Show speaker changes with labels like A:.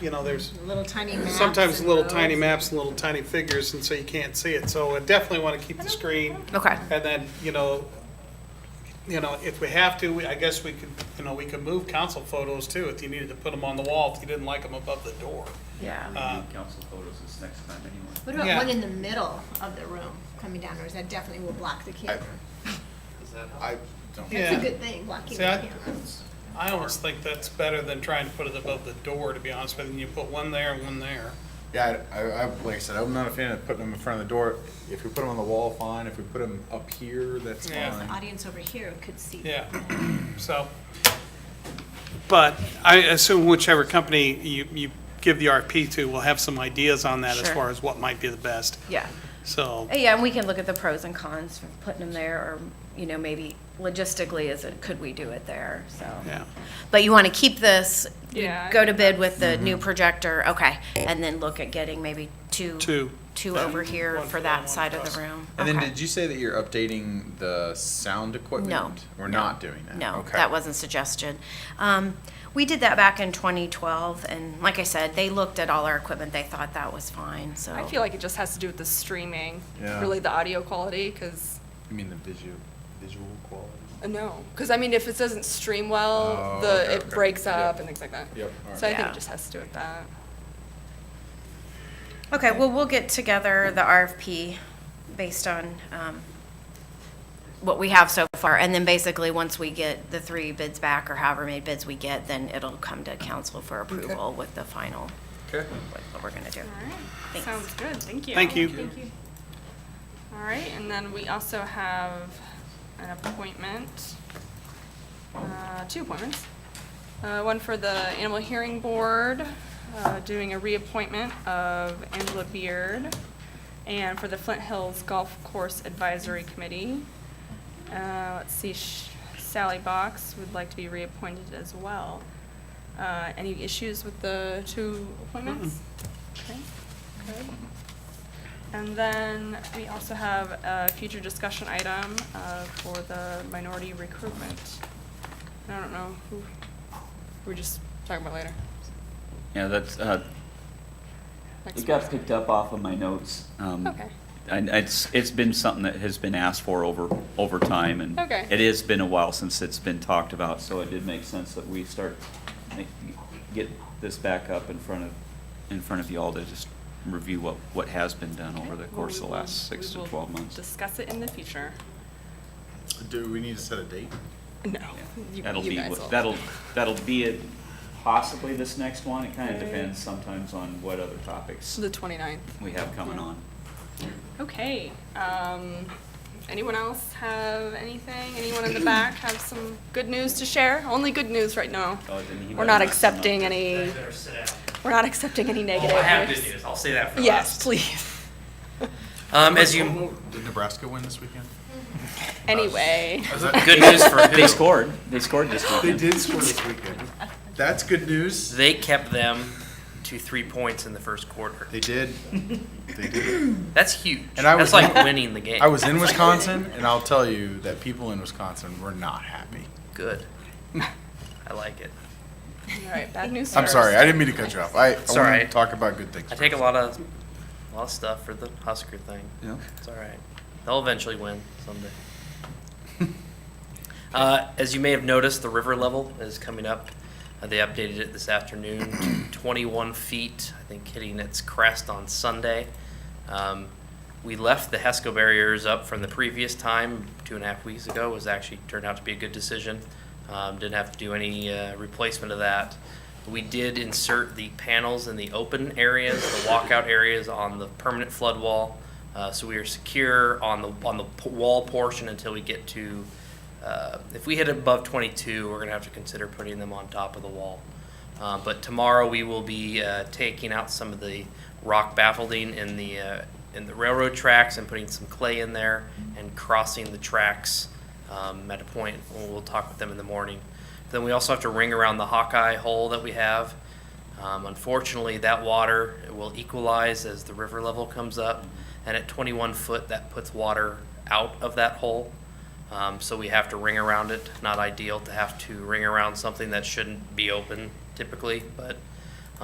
A: you know, there's
B: Little tiny maps.
A: sometimes
B: and
A: little
B: roads.
A: tiny maps, and little tiny figures, and so you can't see it. So I definitely want to keep the screen.
C: Okay.
A: And then, you know, you know, if we have to, we- I guess we could, you know, we could move council photos too, if you needed to put them on the wall, if you didn't like them above the door.
C: Yeah.
A: Uh,
D: council photos this next time anyway.
B: What about
A: Yeah.
B: one in the middle of the room coming down, or is that definitely will block the camera?
E: I don't.
B: That's a
A: Yeah,
B: good thing, blocking the
A: See, I-
B: cameras.
A: I almost think that's better than trying to put it above the door, to be honest with you. You put one there and one there.
E: Yeah, I, I, I- like I said, I'm not a fan of putting them in front of the door. If we put them on the wall, fine. If we put them up here, that's
A: Yeah.
E: fine.
B: Audience over here could see.
A: Yeah, so. But I assume whichever company you, you give the RFP to will have some ideas on that as
C: Sure.
A: far as what might be the best,
C: Yeah.
A: so.
C: Uh, Yeah, and we can look at the pros and cons for putting them there, or, you know, maybe logistically, is it, could we do it there, so.
A: Yeah.
C: But you want to keep this, you
F: Yeah, I
C: go to bid with the new projector, okay, and then look at getting maybe two,
A: Two.
C: two over here
A: One for
C: for
A: them, one
C: that side
A: for
C: of
A: us.
C: the room.
E: And then
C: Okay.
E: did you say that you're updating the sound equipment?
C: No.
E: We're
C: no,
E: not doing that.
C: No,
E: Okay.
C: that wasn't suggested. Um, We did that back in 2012, and like I said, they looked at all our equipment, they thought that was fine, so.
F: I feel like it just has to do with the streaming,
E: Yeah.
F: really the audio quality, because
E: You mean the visual, visual quality?
F: no, because I mean, if it doesn't stream well,
E: Oh,
F: the
E: okay,
F: it
E: okay.
F: breaks up
E: Yep.
F: and things like that.
E: Yep, all right.
F: So I think
C: Yeah.
F: it just has to do with that.
C: Okay, well, we'll get together the RFP based on um, what we have so far, and then basically, once we get the three bids back, or however many bids we get, then it'll come to council for approval with the final,
E: Okay.
C: what what we're going to do.
F: All right,
C: Thanks.
F: sounds good, thank you.
A: Thank you.
F: Thank you. All right, and then we also have an appointment, uh, two appointments. Uh, One for the Animal Hearing Board, uh, doing a reappointment of Angela Beard, and for the Flint Hills Golf Course Advisory Committee. Uh, Let's see, Sh- Sally Box would like to be reappointed as well. Uh, Any issues with the two appointments? Okay, good. And then we also have a future discussion item uh, for the minority recruitment. I don't know who, we're just talking about later.
D: Yeah, that's, uh,
F: Next
D: it got
F: one.
D: picked up off of my notes. um,
F: Okay.
D: And it's, it's been something that has been asked for over, over time, and
F: Okay.
D: it has been a while since it's been talked about, so it did make sense that we start, make- get this back up in front of, in front of you all to just review what, what has been done over the
F: Okay, well,
D: course of
F: we
D: the
F: will-
D: last six
F: we
D: to
F: will
D: twelve months.
F: Discuss it in the future.
E: Do we need to set a date?
F: No.
D: Yeah.
F: you-
D: That'll
F: you
D: be,
F: guys
D: what-
F: will.
D: that'll, that'll be it, possibly this next one, it kind of depends sometimes on what other topics
F: The 29th.
D: we have coming on.
F: Okay. Um, anyone else have anything? Anyone in the back have some good news to share? Only good news right now.
D: Oh, didn't he
F: We're not
D: let us know?
F: accepting any,
G: better sit down.
F: we're not accepting any negative
G: Oh, I have good
F: news.
G: news. I'll say that for
F: Yes,
G: last.
F: please.
G: Um, as you,
E: Did Nebraska win this weekend?
F: Anyway,
G: good news for
D: They
G: who?
D: scored, they scored this
E: They
D: weekend.
E: did score this weekend. That's good news.
G: They kept them to three points in the first quarter.
E: They did. They did.
G: That's huge.
E: And I was-
G: That's like winning the game.
E: I was in Wisconsin, and I'll tell you that people in Wisconsin were not happy.
G: good. I like it.
F: all right, bad news
E: I'm
F: first.
E: sorry, I didn't mean to cut you off. I, I wanted to
G: alright.
E: talk about good things.
G: I take a lot of, a lot of stuff for the Husker thing.
D: Yeah.
G: It's all right. They'll eventually win someday. uh, as you may have noticed, the river level is coming up. Uh, they updated it this afternoon to 21 feet, I think hitting its crest on Sunday. Um, we left the HESCO barriers up from the previous time, two and a half weeks ago, was actually turned out to be a good decision. Um, didn't have to do any uh, replacement of that. We did insert the panels in the open areas, the walkout areas on the permanent flood wall. Uh, so we are secure on the on the p- wall portion until we get to. Uh, if we hit above 22, we're gonna have to consider putting them on top of the wall. Uh, but tomorrow we will be uh, taking out some of the rock baffling in the uh, in the railroad tracks and putting some clay in there and crossing the tracks um, at a point. We'll, we'll talk with them in the morning. Then we also have to ring around the Hawkeye hole that we have. Um, unfortunately, that water will equalize as the river level comes up, and at 21 foot, that puts water out of that hole. Um, so we have to ring around it. Not ideal to have to ring around something that shouldn't be open typically, but